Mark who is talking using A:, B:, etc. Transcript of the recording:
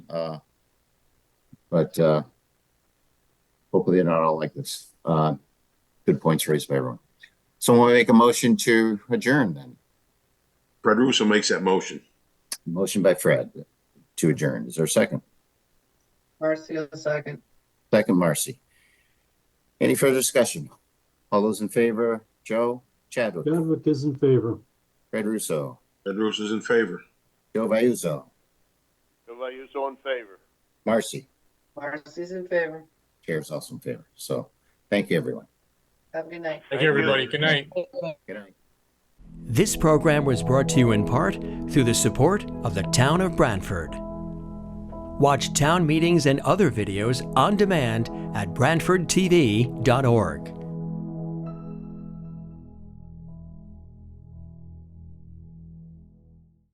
A: Uh, but uh, hopefully they're not all like this. Uh, good points raised by everyone. Someone will make a motion to adjourn then.
B: Fred Russo makes that motion.
A: Motion by Fred to adjourn. Is there a second?
C: Marcio, second.
A: Second, Marcy. Any further discussion? All those in favor, Joe, Chadwick,
D: Chadwick is in favor.
A: Fred Russo,
B: Fred Russo's in favor.
A: Joe Vayuzo,
E: Everybody is all in favor.
A: Marcy.
C: Marcio's in favor.
A: Chair is also in favor. So thank you, everyone.
C: Have a good night.
F: Thank you, everybody. Good night.
A: Good night.
G: This program was brought to you in part through the support of the Town of Brantford. Watch town meetings and other videos on demand at BrantfordTV.org.